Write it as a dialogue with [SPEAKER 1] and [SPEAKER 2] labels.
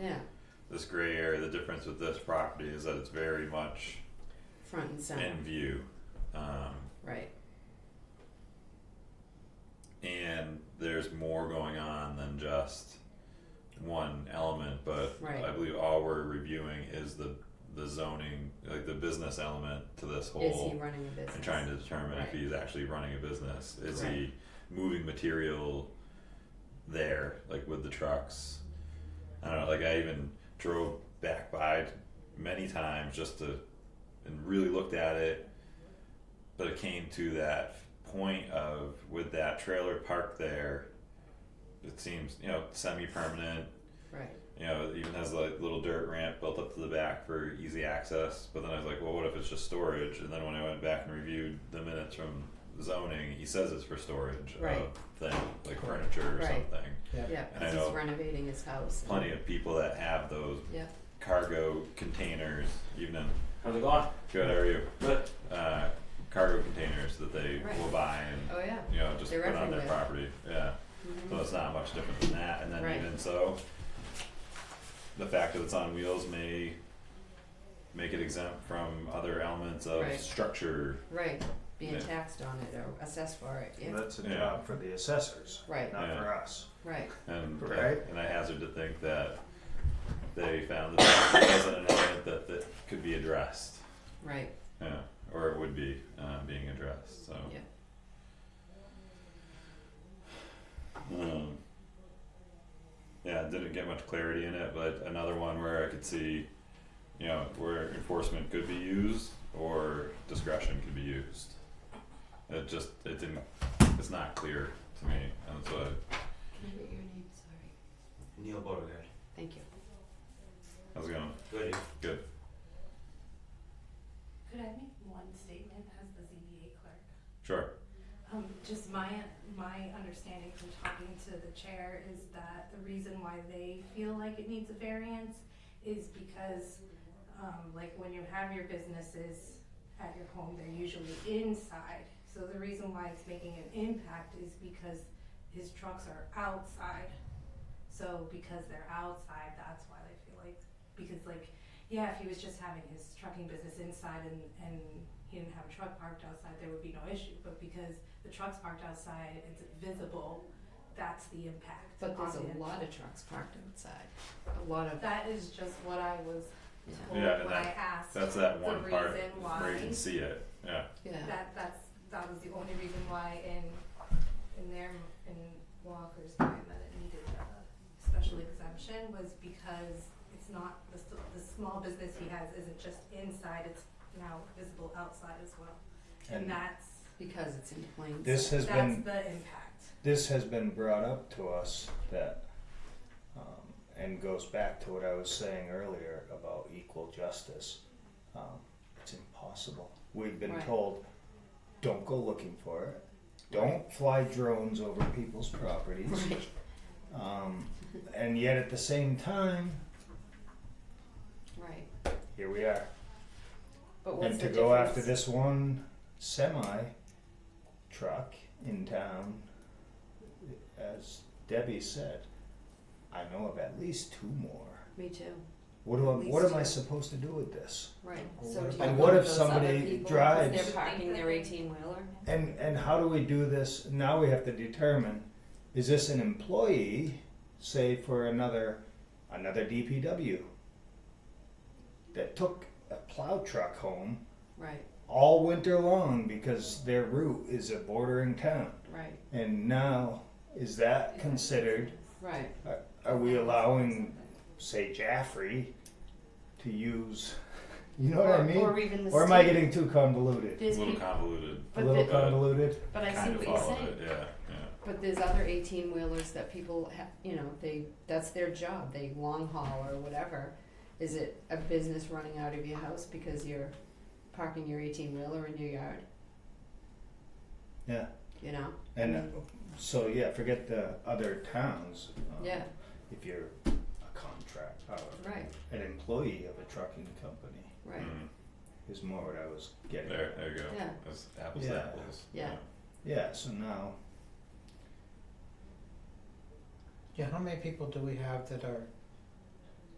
[SPEAKER 1] yeah,
[SPEAKER 2] This gray area, the difference with this property is that it's very much
[SPEAKER 1] front and center,
[SPEAKER 2] in view. Um,
[SPEAKER 1] right,
[SPEAKER 2] and there's more going on than just one element, but
[SPEAKER 1] Right.
[SPEAKER 2] I believe all we're reviewing is the, the zoning, like the business element to this whole.
[SPEAKER 1] is he running a business?
[SPEAKER 2] and trying to determine if
[SPEAKER 1] Right.
[SPEAKER 2] he's actually running a business. Is
[SPEAKER 1] Right.
[SPEAKER 2] he moving material there, like with the trucks? I don't know. Like I even drove back by many times just to and really looked at it, but it came to that point of with that trailer parked there. It seems you know semi permanent.
[SPEAKER 1] Right,
[SPEAKER 2] You know, it even has like little dirt ramp built up to the back for easy access. But then I was like, well, what if it's just storage? And then when I went back and reviewed the minutes from zoning, he says it's for storage
[SPEAKER 1] Right.
[SPEAKER 2] of thing like furniture or
[SPEAKER 1] Right.
[SPEAKER 2] something.
[SPEAKER 1] yeah,
[SPEAKER 2] And I
[SPEAKER 1] cause he's
[SPEAKER 2] know
[SPEAKER 1] renovating his house. and-
[SPEAKER 2] Plenty of people that have those
[SPEAKER 1] Yeah,
[SPEAKER 2] cargo containers, even
[SPEAKER 3] How's it going?
[SPEAKER 2] good how are you?
[SPEAKER 3] Good.
[SPEAKER 2] Uh, cargo containers that they
[SPEAKER 1] Right.
[SPEAKER 2] will buy and
[SPEAKER 1] oh, yeah,
[SPEAKER 2] you know just
[SPEAKER 1] They're
[SPEAKER 2] put on their
[SPEAKER 1] everywhere.
[SPEAKER 2] property. Yeah.
[SPEAKER 1] mhm,
[SPEAKER 2] So it's not much different than that, and then
[SPEAKER 1] Right.
[SPEAKER 2] even so, the fact that it's on wheels may make it exempt from other elements of
[SPEAKER 1] Right.
[SPEAKER 2] structure.
[SPEAKER 1] right, being
[SPEAKER 2] Yeah.
[SPEAKER 1] taxed on it or assessed for it, yeah,
[SPEAKER 4] That's a
[SPEAKER 2] Yeah.
[SPEAKER 4] job for the assessors,
[SPEAKER 1] right,
[SPEAKER 4] not
[SPEAKER 2] Yeah.
[SPEAKER 4] for us.
[SPEAKER 1] right,
[SPEAKER 2] And
[SPEAKER 4] Right.
[SPEAKER 2] and I hazard to think that they found that that wasn't an element that that could be addressed,
[SPEAKER 1] right,
[SPEAKER 2] yeah, or it would be uh, being addressed. So.
[SPEAKER 1] Yeah.
[SPEAKER 2] Um, yeah, didn't get much clarity in it, but another one where I could see, you know, where enforcement could be used or discretion could be used. It just it didn't it's not clear to me, and so
[SPEAKER 1] can I get your name, sorry,
[SPEAKER 5] Neil Beauregard.
[SPEAKER 1] thank you.
[SPEAKER 2] how's it going?
[SPEAKER 5] Good.
[SPEAKER 2] Good.
[SPEAKER 6] Could I make one statement as the ZBA clerk?
[SPEAKER 2] Sure.
[SPEAKER 6] Um, just my, my understanding from talking to the chair is that the reason why they feel like it needs a variance is because, um, like when you have your businesses at your home, they're usually inside. So the reason why it's making an impact is because his trucks are outside. So because they're outside, that's why they feel like, because like, yeah, if he was just having his trucking business inside and, and he didn't have a truck parked outside, there would be no issue, but because the truck's parked outside, it's visible, that's the impact.
[SPEAKER 1] But there's a
[SPEAKER 6] on him.
[SPEAKER 1] lot of trucks parked outside, a lot of,
[SPEAKER 6] That is just what I was
[SPEAKER 1] Yeah.
[SPEAKER 6] told
[SPEAKER 2] Yeah, and
[SPEAKER 6] when I asked.
[SPEAKER 2] That's that
[SPEAKER 6] The
[SPEAKER 2] one part
[SPEAKER 6] reason
[SPEAKER 2] where you
[SPEAKER 6] why.
[SPEAKER 2] can see it. Yeah.
[SPEAKER 1] yeah,
[SPEAKER 6] That, that's, that was the only reason why in, in their, in Walker's mind that it needed a special exemption was because it's not, the, s- the small business he has isn't just inside, it's now visible outside as well. And
[SPEAKER 4] And
[SPEAKER 6] that's,
[SPEAKER 1] because it's in plain sight.
[SPEAKER 4] This has
[SPEAKER 6] that's
[SPEAKER 4] been,
[SPEAKER 6] the impact.
[SPEAKER 4] this has been brought up to us that, um, and goes back to what I was saying earlier about equal justice. Um, it's impossible. We've been
[SPEAKER 1] Right.
[SPEAKER 4] told, don't go looking for it. Don't fly drones over people's properties.
[SPEAKER 1] Right,
[SPEAKER 4] Um, and yet at the same time,
[SPEAKER 1] right,
[SPEAKER 4] here we are.
[SPEAKER 1] but what's
[SPEAKER 4] And
[SPEAKER 1] the
[SPEAKER 4] to
[SPEAKER 1] difference?
[SPEAKER 4] go after this one semi truck in town, as Debbie said, I know of at least two more.
[SPEAKER 1] Me too,
[SPEAKER 4] What do I,
[SPEAKER 6] At
[SPEAKER 4] what
[SPEAKER 6] least
[SPEAKER 4] am I
[SPEAKER 6] two.
[SPEAKER 4] supposed to do with this?
[SPEAKER 1] right,
[SPEAKER 4] Well,
[SPEAKER 1] so
[SPEAKER 4] what
[SPEAKER 1] do
[SPEAKER 4] if-
[SPEAKER 1] you
[SPEAKER 4] and
[SPEAKER 1] go
[SPEAKER 4] what
[SPEAKER 1] to
[SPEAKER 4] if
[SPEAKER 1] those other
[SPEAKER 4] somebody
[SPEAKER 1] people, cause
[SPEAKER 4] drives-
[SPEAKER 1] they're parking their eighteen wheeler,
[SPEAKER 4] And and how do we do this? Now we have to determine is this an employee, say for another another DPW that took a plow truck home
[SPEAKER 1] right,
[SPEAKER 4] all winter long because their route is a bordering town.
[SPEAKER 1] right,
[SPEAKER 4] And now, is that considered,
[SPEAKER 1] right,
[SPEAKER 4] are we allowing, say, Jaffrey to use, you know what I
[SPEAKER 1] Or- Or
[SPEAKER 4] mean?
[SPEAKER 1] even the
[SPEAKER 4] Or am I
[SPEAKER 1] state.
[SPEAKER 4] getting too convoluted?
[SPEAKER 2] A
[SPEAKER 1] There's
[SPEAKER 2] little
[SPEAKER 1] peop-
[SPEAKER 2] convoluted.
[SPEAKER 4] A
[SPEAKER 1] But
[SPEAKER 4] little
[SPEAKER 1] the,
[SPEAKER 2] bit.
[SPEAKER 4] convoluted?
[SPEAKER 1] but I see
[SPEAKER 2] kind of
[SPEAKER 1] what you're
[SPEAKER 2] follow
[SPEAKER 1] saying,
[SPEAKER 2] it, yeah, yeah.
[SPEAKER 1] but there's other eighteen wheelers that people ha- you know, they, that's their job, they long haul or whatever. Is it a business running out of your house because you're parking your eighteen wheeler in your yard,
[SPEAKER 4] Yeah.
[SPEAKER 1] you know,
[SPEAKER 4] And uh,
[SPEAKER 1] Mm-hmm.
[SPEAKER 4] so, yeah, forget the other towns.
[SPEAKER 2] Uh,
[SPEAKER 4] um,
[SPEAKER 1] yeah,
[SPEAKER 4] If you're a contract, or
[SPEAKER 1] right,
[SPEAKER 4] an employee of a trucking company
[SPEAKER 1] right,
[SPEAKER 2] Mm.
[SPEAKER 4] is more what I was getting. at.
[SPEAKER 2] There, there you go.
[SPEAKER 1] Yeah.
[SPEAKER 2] That's apples to
[SPEAKER 4] Yeah.
[SPEAKER 2] apples.
[SPEAKER 1] Yeah.
[SPEAKER 4] Yeah, so now,
[SPEAKER 7] Yeah, how many people do we have that are